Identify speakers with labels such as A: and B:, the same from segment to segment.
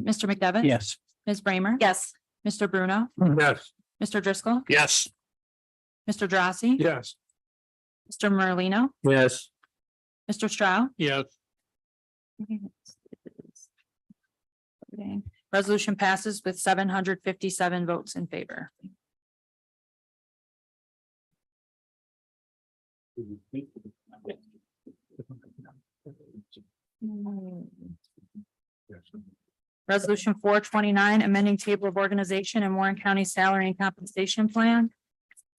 A: Mr. McDevitt?
B: Yes.
A: Ms. Bramer?
C: Yes.
A: Mr. Bruno?
B: Yes.
A: Mr. Driscoll?
B: Yes.
A: Mr. Drossy?
B: Yes.
A: Mr. Merlino?
B: Yes.
A: Mr. Stroud?
B: Yes.
A: Resolution passes with seven hundred fifty-seven votes in favor. Resolution four twenty-nine, amending table of organization and Warren County Salary and Compensation Plan.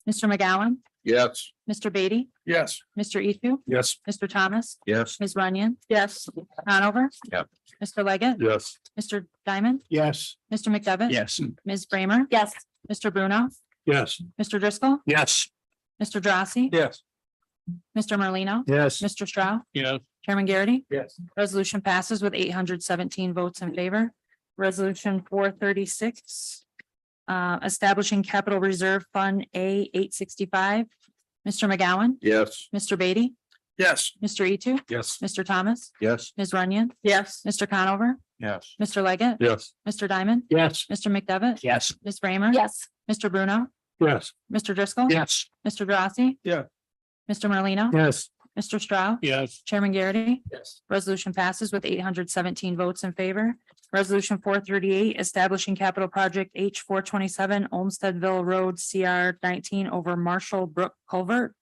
A: Mr. McGowan,
B: Yes.
A: Mr. Beatty,
B: Yes.
A: Mr. Ethu,
B: Yes.
A: Mr. Thomas,
B: Yes.
A: Ms. Runyon. Yes. Conover.
B: Yep.
A: Mr. Leggett,
B: Yes.
A: Mr. Diamond,
B: Yes.
A: Mr. McDevitt.
B: Yes.
A: Ms. Bramer,
C: Yes.
A: Mr. Bruno,
B: Yes.
A: Mr. Driscoll,
B: Yes.
A: Mr. Drossy,
B: Yes.
A: Mr. Merlino,
B: Yes.
A: Mr. Stroud,
B: Yes.
A: Chairman Garrity.
B: Yes.
A: Resolution passes with eight hundred seventeen votes in favor. Resolution four thirty-six. Uh, establishing capital reserve fund A eight sixty-five. Mr. McGowan,
B: Yes.
A: Mr. Beatty,
B: Yes.
A: Mr. Etu,
B: Yes.
A: Mr. Thomas,
B: Yes.
A: Ms. Runyon,
C: Yes.
A: Mr. Conover,
B: Yes.
A: Mr. Leggett,
B: Yes.
A: Mr. Diamond,
B: Yes.
A: Mr. McDevitt,
B: Yes.
A: Ms. Bramer.
C: Yes.
A: Mr. Bruno,
B: Yes.
A: Mr. Driscoll.
B: Yes.
A: Mr. Drossy.
B: Yeah.
A: Mr. Merlino.
B: Yes.
A: Mr. Stroud.
B: Yes.
A: Chairman Garrity.
B: Yes.
A: Resolution passes with eight hundred seventeen votes in favor. Resolution four thirty-eight, establishing capital project H four twenty-seven Olmstedville Road CR nineteen over Marshall Brook Culvert.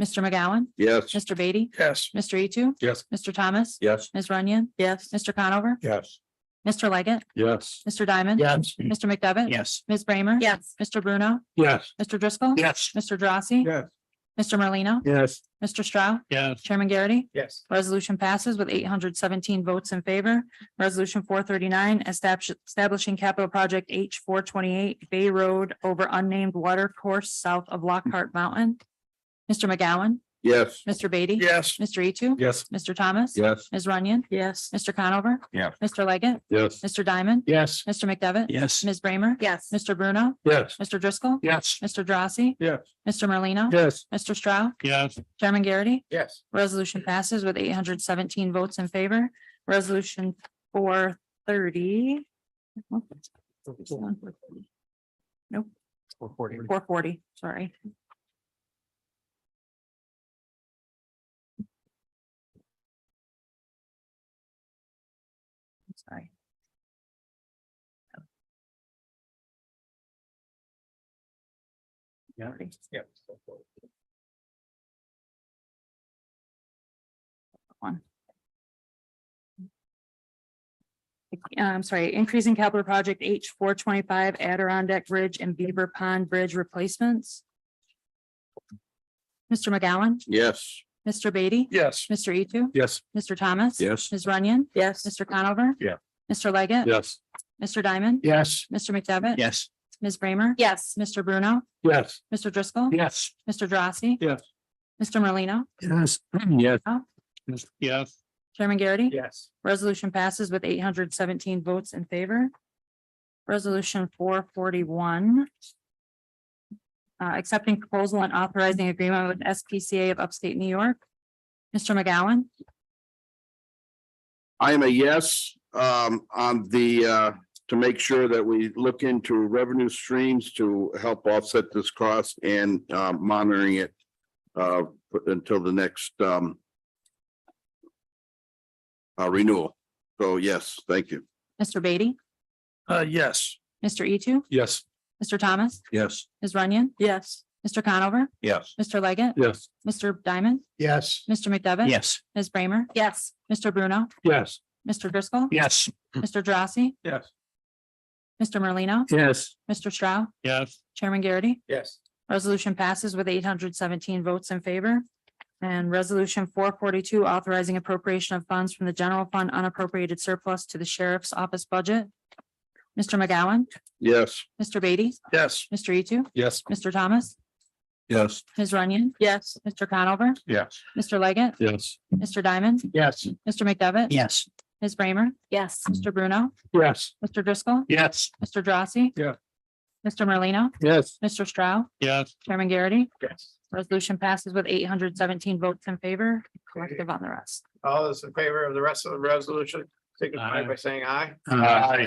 A: Mr. McGowan,
B: Yes.
A: Mr. Beatty,
B: Yes.
A: Mr. Etu,
B: Yes.
A: Mr. Thomas,
B: Yes.
A: Ms. Runyon,
C: Yes.
A: Mr. Conover,
B: Yes.
A: Mr. Leggett,
B: Yes.
A: Mr. Diamond.
B: Yes.
A: Mr. McDevitt.
B: Yes.
A: Ms. Bramer.
C: Yes.
A: Mr. Bruno,
B: Yes.
A: Mr. Driscoll.
B: Yes.
A: Mr. Drossy.
B: Yes.
A: Mr. Merlino,
B: Yes.
A: Mr. Stroud,
B: Yes.
A: Chairman Garrity.
B: Yes.
A: Resolution passes with eight hundred seventeen votes in favor. Resolution four thirty-nine, establishing capital project H four twenty-eight Bay Road over unnamed water course south of Lockhart Mountain. Mr. McGowan,
B: Yes.
A: Mr. Beatty.
B: Yes.
A: Mr. Etu,
B: Yes.
A: Mr. Thomas.
B: Yes.
A: Ms. Runyon,
C: Yes.
A: Mr. Conover.
B: Yeah.
A: Mr. Leggett,
B: Yes.
A: Mr. Diamond,
B: Yes.
A: Mr. McDevitt.
B: Yes.
A: Ms. Bramer.
C: Yes.
A: Mr. Bruno,
B: Yes.
A: Mr. Driscoll,
B: Yes.
A: Mr. Drossy.
B: Yeah.
A: Mr. Merlino,
B: Yes.
A: Mr. Stroud,
B: Yes.
A: Chairman Garrity.
B: Yes.
A: Resolution passes with eight hundred seventeen votes in favor. Resolution four thirty. Nope. Four forty, sorry. Sorry.
B: Yeah. Yeah.
A: I'm um, sorry, increasing capital project H four twenty-five Adirondack Bridge and Beaver Pond Bridge replacements. Mr. McGowan,
B: Yes.
A: Mr. Beatty,
B: Yes.
A: Mr. Etu,
B: Yes.
A: Mr. Thomas.
B: Yes.
A: Ms. Runyon,
C: Yes.
A: Mr. Conover.
B: Yeah.
A: Mr. Leggett.
B: Yes.
A: Mr. Diamond.
B: Yes.
A: Mr. McDevitt.
B: Yes.
A: Ms. Bramer.
C: Yes.
A: Mr. Bruno,
B: Yes.
A: Mr. Driscoll.
B: Yes.
A: Mr. Drossy.
B: Yes.
A: Mr. Merlino,
B: Yes. Yes. Yes.
A: Chairman Garrity.
B: Yes.
A: Resolution passes with eight hundred seventeen votes in favor. Resolution four forty-one. Uh, accepting proposal and authorizing agreement with SPCA of Upstate New York. Mr. McGowan,
D: I am a yes, um, on the, uh, to make sure that we look into revenue streams to help offset this cost and, uh, monitoring it, uh, until the next, um, uh, renewal. So yes, thank you.
A: Mr. Beatty,
B: Uh, yes.
A: Mr. Etu,
B: Yes.
A: Mr. Thomas,
B: Yes.
A: Ms. Runyon,
C: Yes.
A: Mr. Conover,
B: Yes.
A: Mr. Leggett,
B: Yes.
A: Mr. Diamond,
B: Yes.
A: Mr. McDevitt.
B: Yes.
A: Ms. Bramer,
C: Yes.
A: Mr. Bruno,
B: Yes.
A: Mr. Driscoll,
B: Yes.
A: Mr. Drossy,
B: Yes.
A: Mr. Merlino,
B: Yes.
A: Mr. Stroud,
B: Yes.
A: Chairman Garrity.
B: Yes.
A: Resolution passes with eight hundred seventeen votes in favor. And resolution four forty-two authorizing appropriation of funds from the general fund unappropriated surplus to the sheriff's office budget. Mr. McGowan,
D: Yes.
A: Mr. Beatty,
B: Yes.
A: Mr. Etu,
B: Yes.
A: Mr. Thomas,
B: Yes.
A: Ms. Runyon,
C: Yes.
A: Mr. Conover,
B: Yes.
A: Mr. Leggett,
B: Yes.
A: Mr. Diamond,
B: Yes.
A: Mr. McDevitt.
B: Yes.
A: Ms. Bramer,
C: Yes.
A: Mr. Bruno,
B: Yes.
A: Mr. Driscoll,
B: Yes.
A: Mr. Drossy.
B: Yeah.
A: Mr. Merlino,
B: Yes.
A: Mr. Stroud,
B: Yes.
A: Chairman Garrity,
E: Yes.
A: resolution passes with eight hundred seventeen votes in favor, collective on the rest.
E: All those in favor of the rest of the resolution?
C: signify by saying aye.
B: Aye.